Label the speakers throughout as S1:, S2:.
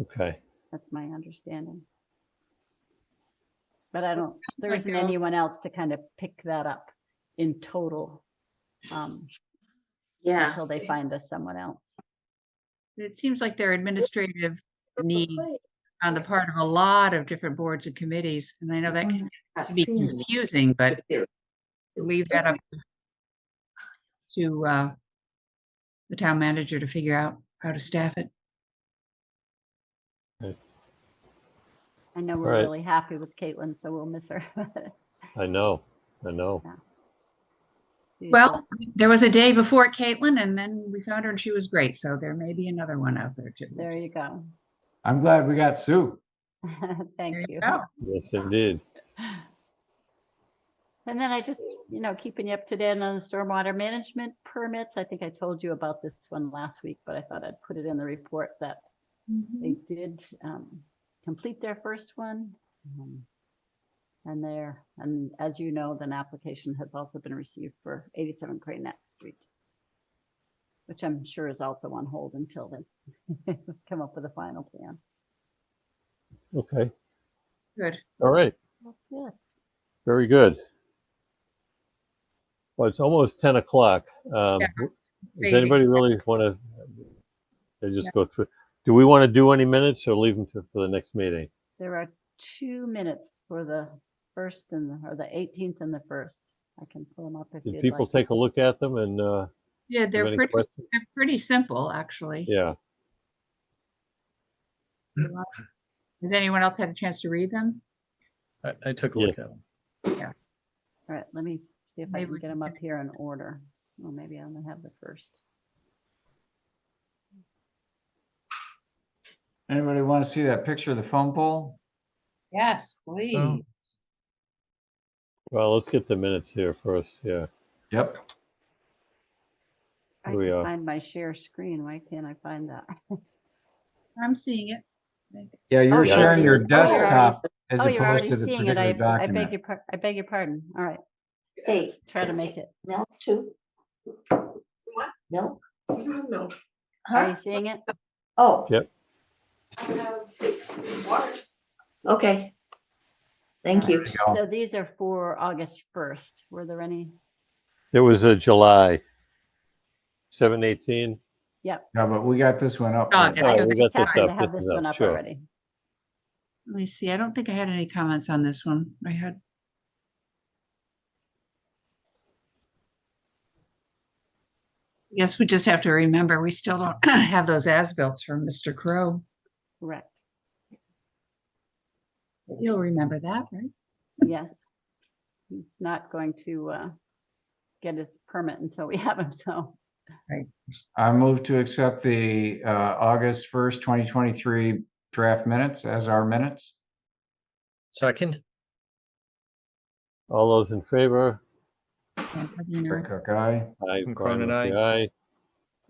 S1: Okay,
S2: That's my understanding. But I don't, there
S3: like
S2: isn't
S3: they're all-
S2: anyone else to kind of pick that up in total. um,
S4: Yeah.
S2: Until they find us someone else.
S3: It seems like there are administrative needs on the part of a lot of different boards and committees, and Oh, I know that can
S4: Not
S3: be
S4: seeing it
S3: confusing, but
S4: here.
S3: leave that up to uh, the town manager to figure out how to staff it.
S2: I know we're
S1: Right.
S2: really happy with Caitlin, so we'll miss her.
S1: I know, I know.
S2: She's
S3: Well,
S2: a-
S3: there was a day before Caitlin, and then we found her and she was great, so there may be another one out there too.
S2: There you go.
S5: I'm glad we got Sue.
S3: There
S2: Thank
S3: you
S2: you.
S3: go.
S1: Yes, indeed.
S2: And then I just, you know, keeping you up to date on the stormwater management permits. I think I told you about this one last week, but I thought I'd put it in the report that
S3: Mm-hmm.
S2: they did um, complete their first one. um, And there, and as you know, then application has also been received for 87 Crane Street, which I'm sure is also on hold until they come up with a final plan.
S1: Okay,
S3: Good.
S1: all right,
S2: That's it.
S1: very good. Well, it's almost 10 o'clock. Um,
S3: Yeah,
S1: w-
S3: it's
S1: Does
S3: crazy.
S1: anybody really want to, they just go through, do we want to do any minutes or leave them to, for the next meeting?
S2: There are two minutes for the first and, the- or the 18th and the first. I can pull them up if
S1: Did
S2: you'd
S1: people
S2: like.
S1: take a look at them and, uh,
S3: Yeah, they're
S1: any
S3: pretty,
S1: questions?
S3: they're pretty simple, actually.
S1: yeah,
S3: Has anyone else had a chance to read them?
S6: I, I took a look at
S1: Yes.
S6: them.
S2: All right, let me see if I
S3: Maybe
S2: can
S3: we
S2: get
S3: can
S2: them up
S3: finish.
S2: here in order. Well, maybe I only have the first.
S5: Anybody want to see that picture of the phone pole?
S3: Yes, please.
S1: well, let's get the minutes here first, yeah.
S5: Yep.
S2: I
S1: Here we
S2: can
S1: are.
S2: find my share screen. Why can't I find that?
S3: I'm seeing it.
S5: Yeah, you're
S1: yeah.
S5: sharing your
S2: Oh, you're already-
S5: desktop as
S2: Oh, you're
S5: opposed
S2: already
S5: to the
S2: seeing it. I,
S5: particular
S2: I beg your,
S5: document.
S2: par- I beg your pardon. All right,
S4: Hey.
S2: try to make it.
S4: Milk too?
S7: What?
S4: Milk?
S7: No,
S2: Are you
S4: Huh?
S2: seeing it?
S4: Oh,
S7: I have water.
S4: okay. Thank you.
S5: Oh.
S2: So these are for August 1st. Were there any?
S1: There was a July 7, 18.
S5: No, but we got this one up.
S3: Oh,
S5: right?
S3: Yeah,
S1: Oh,
S3: so
S1: we
S2: I
S1: got
S2: just
S1: this
S2: happen to
S1: up,
S2: have
S1: this
S2: this
S1: is
S2: one
S1: up,
S2: up
S1: sure.
S2: already.
S3: Let me see. I don't think I had any comments on this one. I had. Yes, we just have to remember, we still don't have those as-bills from Mr. Crow.
S2: Correct.
S3: You'll remember that, right?
S2: Yes. He's not going to uh, get his permit until we have him, so.
S5: I move to accept the uh, August 1st, 2023 draft minutes as our minutes.
S6: Second,
S1: All those in favor?
S3: And, you know,
S5: Rick Cook, aye.
S1: Aye. Brian
S6: From Cronin,
S1: Murphy, Aye.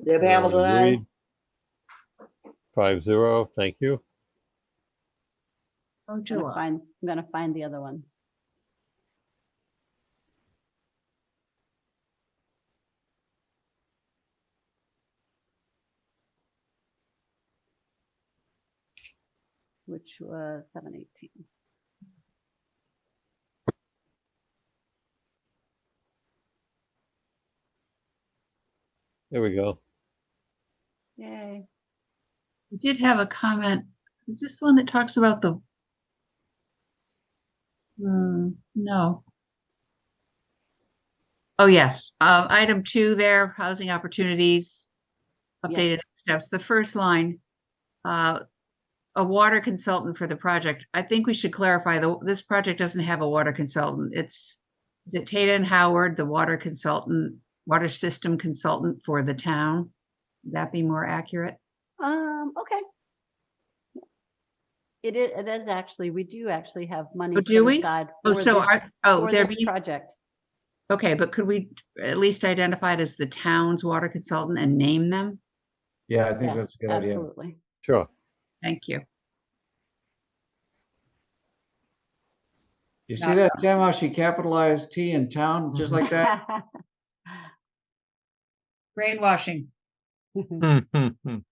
S4: Zeb Hamilton, aye.
S1: Five zero, thank you.
S3: Oh,
S2: I'm gonna
S3: July.
S2: find, I'm gonna find the other ones. Which was seven eighteen.
S1: There we go.
S2: Yay.
S3: We did have a comment. Is this the one that talks about the? Hmm, no. Oh, yes. Uh, item two there, housing opportunities.
S2: Yes.
S3: Updated steps, the first line. Uh, a water consultant for the project. I think we should clarify the, this project doesn't have a water consultant. It's. Is it Tata and Howard, the water consultant, water system consultant for the town? Would that be more accurate?
S2: Um, okay. It is, it is actually, we do actually have money
S3: Oh, do
S2: set
S3: we?
S2: aside
S3: Oh,
S2: for
S3: so
S2: this,
S3: are, oh,
S2: for
S3: there
S2: this
S3: be,
S2: project.
S3: okay, but could we at least identify it as the town's water consultant and name them?
S5: Yeah, I think
S2: Yes,
S5: that's a good idea.
S2: absolutely.
S1: Sure.
S3: Thank you.
S5: You see that, Tim, how she capitalized T in town, just like that?
S3: Brainwashing.
S6: Hmm, hmm, hmm.